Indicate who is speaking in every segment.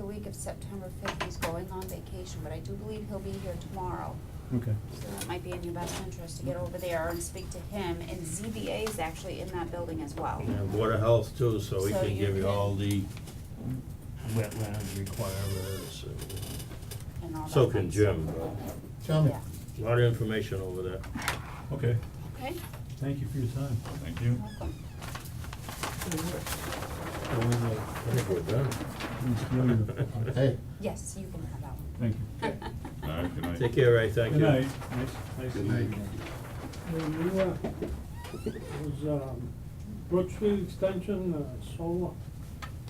Speaker 1: week of September fifth, he's going on vacation, but I do believe he'll be here tomorrow.
Speaker 2: Okay.
Speaker 1: So it might be in your best interest to get over there and speak to him, and ZBA is actually in that building as well.
Speaker 3: And Board of Health too, so we
Speaker 1: So
Speaker 3: can
Speaker 1: you
Speaker 3: give you
Speaker 1: can-
Speaker 3: all the wetland requirements. and-
Speaker 1: And all that
Speaker 3: So
Speaker 1: fun
Speaker 3: can
Speaker 1: stuff.
Speaker 3: Jim, though.
Speaker 2: Charlie?
Speaker 1: Yeah,
Speaker 3: a lot of information over there.
Speaker 2: Okay,
Speaker 1: okay,
Speaker 2: thank you for your time.
Speaker 4: Thank you.
Speaker 1: welcome.
Speaker 3: I think we're done.
Speaker 2: It's really-
Speaker 5: Hey,
Speaker 1: Yes, you can have that one.
Speaker 2: Thank you.
Speaker 4: All right, good night.
Speaker 3: Take care, Ray, thank you.
Speaker 2: Good night, nice, nice
Speaker 5: Good
Speaker 2: to meet
Speaker 5: night.
Speaker 2: you.
Speaker 6: When you, uh, was, um, Brook Street Extension, uh, solar,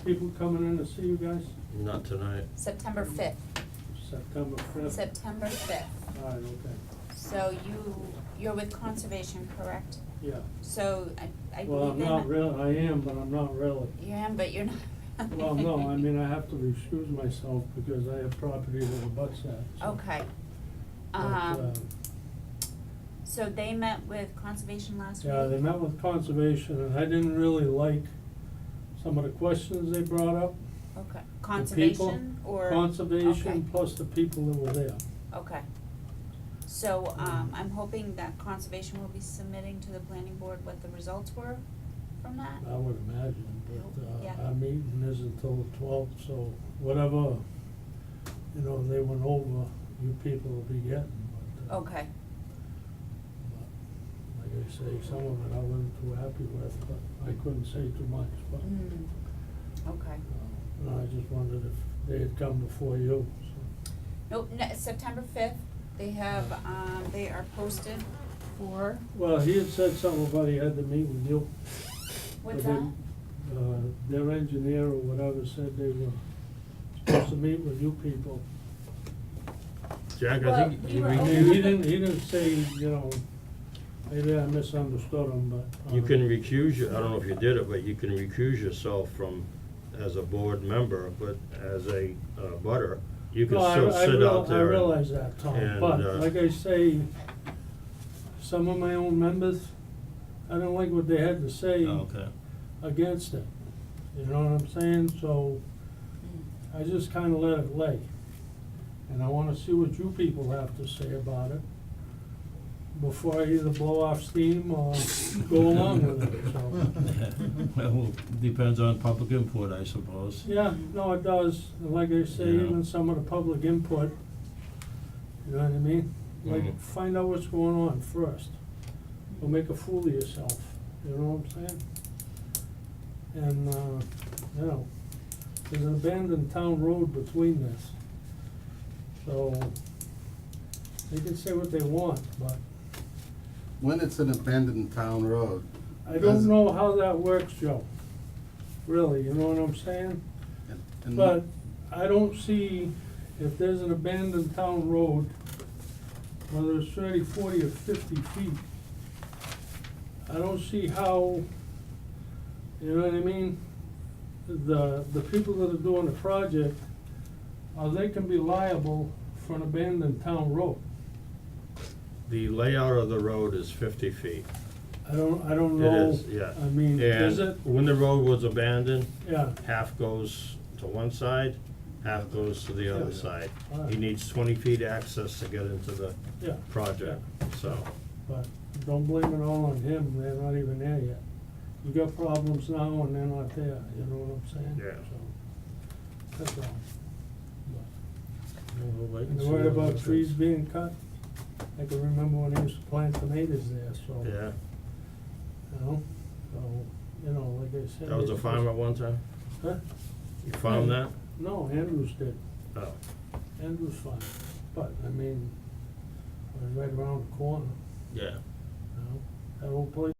Speaker 6: people coming in to see you guys
Speaker 3: Not tonight.
Speaker 1: September fifth,
Speaker 6: September fifth?
Speaker 1: September fifth.
Speaker 6: All right, okay,
Speaker 1: So you, you're with conservation, correct?
Speaker 6: yeah.
Speaker 1: So I, I believe in.
Speaker 6: Well, I'm not real, I am, but I'm not really.
Speaker 1: You am, but you're not.
Speaker 6: Well, no, I mean, I have to recuse myself because I have property that abuts that, so.
Speaker 1: Okay.
Speaker 6: But,
Speaker 1: Um,
Speaker 6: uh,
Speaker 1: so they met with conservation last week?
Speaker 6: Yeah, they met with conservation and I didn't really like some of the questions they brought up.
Speaker 1: Okay,
Speaker 6: The people-
Speaker 1: conservation or?
Speaker 6: Conservation
Speaker 1: Okay.
Speaker 6: plus the people that were there.
Speaker 1: Okay. So, um, I'm hoping that conservation will be submitting to the planning board what the results were from that?
Speaker 6: I would imagine, but,
Speaker 1: Yeah.
Speaker 6: uh, our meeting is until the twelfth, so whatever, you know, they went over, you people will be getting, but. uh,
Speaker 1: Okay,
Speaker 6: but, Like I say, some of it I wasn't too happy with, but I couldn't say too much, but,
Speaker 1: mm, okay.
Speaker 6: uh, and I just wondered if they had come before you, so.
Speaker 1: No, ne- September fifth, they have, um, they are posted for,
Speaker 6: Well, he had said something about he had to meet with you.
Speaker 1: what's that?
Speaker 6: but then, Uh, their engineer or whatever said they were supposed to meet with you people.
Speaker 3: Jack, I
Speaker 1: Well,
Speaker 3: think
Speaker 1: we
Speaker 3: you
Speaker 1: were
Speaker 3: re-
Speaker 6: He
Speaker 1: open-
Speaker 6: he didn't, he didn't say, you know, maybe I misunderstood him, but. uh,
Speaker 3: you can recuse, your- I don't know if you did it, but you can recuse yourself from, as a board member, but as a uh, butter, you can
Speaker 6: No, I-
Speaker 3: still
Speaker 6: I
Speaker 3: sit
Speaker 6: real-
Speaker 3: out there.
Speaker 6: I
Speaker 3: and-
Speaker 6: realize that, Tom,
Speaker 3: and,
Speaker 6: but
Speaker 3: uh,
Speaker 6: like I say, some of my own members, I don't like what they had to say
Speaker 3: Oh, Okay.
Speaker 6: against it. You know what I'm saying? So
Speaker 1: Mm.
Speaker 6: I just kinda let it lay. And I wanna see what you people have to say about it before I either blow off steam or go along with it, so.
Speaker 3: Well, depends on public input, I suppose.
Speaker 6: Yeah, no, it does, And like I say,
Speaker 3: Yeah.
Speaker 6: even some of the public input, you know what I mean?
Speaker 3: Mhm.
Speaker 6: Like, find out what's going on first, or make a fool of yourself, you know what I'm saying? And, uh, you know, there's an abandoned town road between this, so they can say what they want, but
Speaker 5: when it's an abandoned town road,
Speaker 6: I
Speaker 5: Does-
Speaker 6: don't know how that works, Joe, really, you know what I'm saying?
Speaker 5: and, and
Speaker 6: But I don't see if there's an abandoned town road, whether it's thirty, forty, or fifty feet, I don't see how, you know what I mean? The, the people that are doing the project, uh, they can be liable for an abandoned town road.
Speaker 3: The layout of the road is fifty feet.
Speaker 6: I don't, I don't
Speaker 3: It
Speaker 6: know.
Speaker 3: is, yeah.
Speaker 6: I mean, is it?
Speaker 3: And when the road was abandoned,
Speaker 6: Yeah,
Speaker 3: half goes to one side, half goes to the other
Speaker 6: Yeah.
Speaker 3: side. He
Speaker 6: Alright.
Speaker 3: needs twenty feet access to get into the
Speaker 6: yeah,
Speaker 3: project, so.
Speaker 6: but don't blame it all on him, they're not even there yet. You got problems now and they're not there, you know what I'm saying?
Speaker 3: Yeah.
Speaker 6: So, that's all. But-
Speaker 3: we'll wait
Speaker 6: And
Speaker 3: see
Speaker 6: the worry
Speaker 3: what
Speaker 6: about
Speaker 3: happens.
Speaker 6: trees being cut, I can remember when he used to plant tomatoes there, so.
Speaker 3: Yeah,
Speaker 6: You know, so, you know, like I said.
Speaker 3: that was a
Speaker 6: it's just-
Speaker 3: farm at one time?
Speaker 6: Huh?
Speaker 3: You found that?
Speaker 6: No, Andrews did,
Speaker 3: Oh,
Speaker 6: Andrews farm, but, I mean, it was right around the corner,
Speaker 3: yeah.
Speaker 6: you know, that old place